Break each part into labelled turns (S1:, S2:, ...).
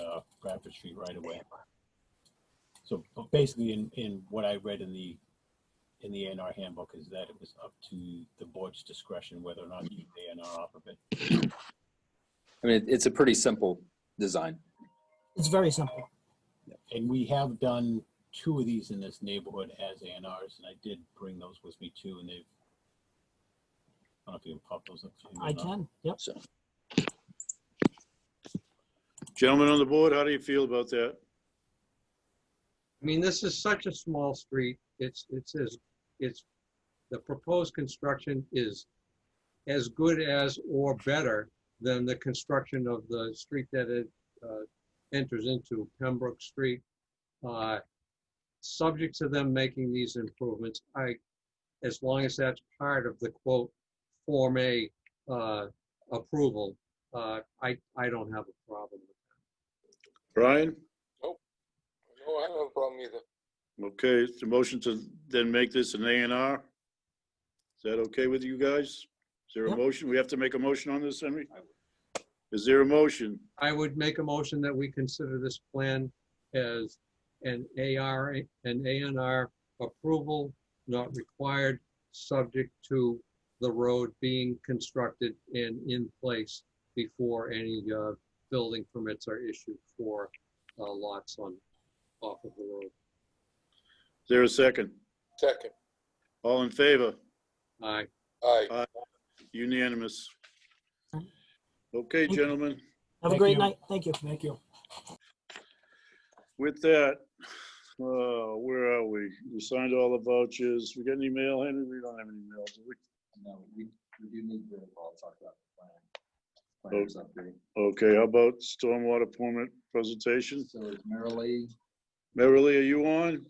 S1: uh, Bradford Street right away. So but basically, in, in what I read in the, in the A and R handbook is that it was up to the board's discretion whether or not to use the A and R off of it.
S2: I mean, it's a pretty simple design.
S3: It's very simple.
S1: And we have done two of these in this neighborhood as A and Rs, and I did bring those with me too, and they've. I don't know if you can pop those up. to me or
S3: I
S1: not.
S3: can, yep.
S2: So,
S4: Gentlemen on the board, how do you feel about that?
S5: I mean, this is such a small street. It's, it's, as- it's, the proposed construction is as good as or better than the construction of the street that it uh, enters into, Pembroke Street. Uh, Subject to them making these improvements, I, as long as that's part of the quote, Form A uh, approval, uh, I, I don't have a problem with it.
S4: Brian?
S6: No, I don't have a problem either.
S4: Okay, it's a motion to then make this an A and R. Is that okay with you guys? Is there a
S3: Yep.
S4: motion? We have to make a motion on this, Henry? Is there a motion?
S5: I would make a motion that we consider this plan as an AR, an ANR approval not required, subject to the road being constructed and in place before any uh, building permits are issued for uh, lots on, off of the road.
S4: Is there a second?
S6: Second,
S4: All in favor?
S5: Aye.
S6: aye.
S4: Unanimous. Okay, gentlemen,
S3: Have a
S1: Thank
S3: great
S1: you.
S3: night. Thank you. Thank you.
S4: with that, uh, where are we? We signed all the vouchers. We got any mail, Henry? We don't have any mail, do we?
S7: No, we, we do need to, well, talk about the plan. Plans update.
S4: Oh, Okay, how about stormwater permit presentation?
S7: So is Merrily,
S4: Merrily, are you on?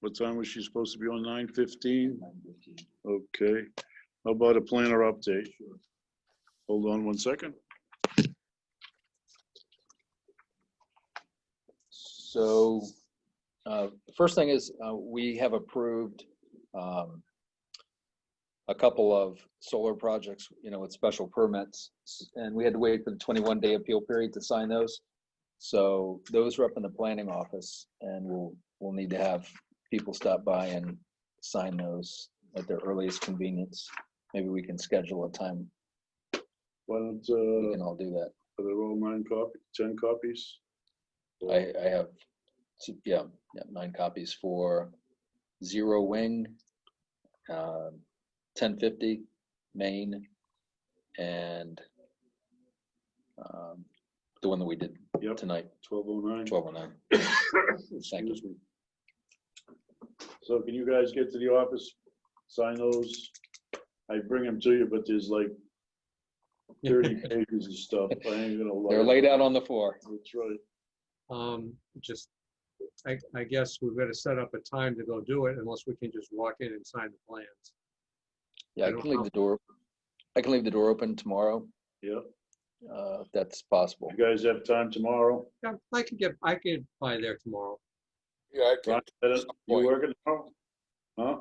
S4: What time was she supposed to be on? Nine fifteen?
S7: nine fifteen.
S4: Okay. How about a planner update? Hold on one second.
S2: so uh, the first thing is, uh, we have approved um, a couple of solar projects, you know, with special permits, s- and we had to wait for the 21-day appeal period to sign those. So those are up in the planning office, and we'll, we'll need to have people stop by and sign those at their earliest convenience. Maybe we can schedule a time,
S4: Why don't,
S2: we
S4: uh,
S2: can all do that.
S4: are there all nine copy, ten copies?
S2: I, I have, two- yeah, yeah, nine copies for Zero Wing, um, ten fifty Maine, and um, the one that we did
S4: Yep.
S2: tonight,
S4: Twelve oh nine.
S2: twelve oh nine.
S4: Excuse me. So can you guys get to the office, sign those? I bring them to you, but there's like thirty pages of stuff. I ain't gonna. lug
S2: They're
S4: it.
S2: laid out on the floor.
S4: That's right.
S5: Um, just, I, I guess we've got to set up a time to go do it unless we can just walk in and sign the plans.
S2: Yeah,
S5: I
S2: I
S5: don't
S2: can leave
S5: know.
S2: the door, I can leave the door open tomorrow,
S4: Yep.
S2: uh, if that's possible.
S4: You guys have time tomorrow?
S5: Yeah, I can get, I can buy there tomorrow.
S6: Yeah, I can,
S4: Brian, you working tomorrow? Huh?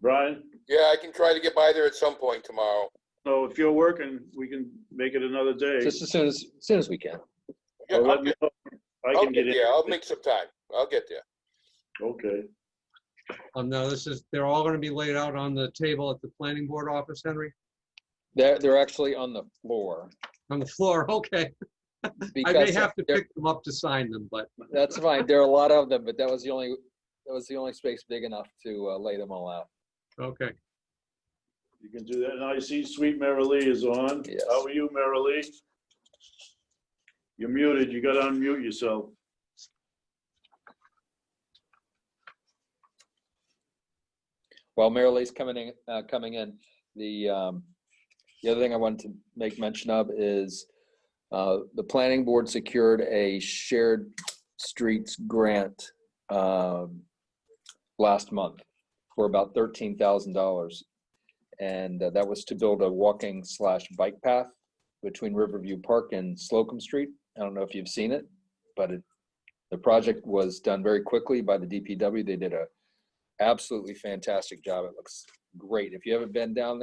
S4: Brian?
S6: yeah, I can try to get by there at some point tomorrow.
S4: No, if you're working, we can make it another day.
S2: Just as soon as, as soon as we can.
S6: Yeah,
S4: Or let
S6: I'll
S4: me
S6: get,
S4: know. I
S6: I'll
S4: can
S6: get
S4: get in.
S6: there, I'll make some time, I'll get there.
S4: Okay,
S5: Um, no, this is, they're all gonna be laid out on the table at the planning board office, Henry,
S2: They're, they're actually on the floor.
S5: on the floor, okay. I may
S2: because
S5: have to
S2: they're-
S5: pick them up to sign them, but,
S2: That's fine. There are a lot of them, but that was the only, that was the only space big enough to uh, lay them all out.
S5: okay.
S4: you can do that. And I see Sweet Mary Lee is on.
S2: Yes.
S4: How are you, Mary Lee? You're muted. You gotta unmute yourself.
S2: While Marilee's coming in, uh, coming in, the, um, the other thing I wanted to make mention of is uh, the planning board secured a shared streets grant um, last month for about thirteen thousand dollars. And uh, that was to build a walking slash bike path between Riverview Park and Slocum Street. I don't know if you've seen it, but it, the project was done very quickly by the DPW. They did a absolutely fantastic job. It looks great. If you haven't been down there.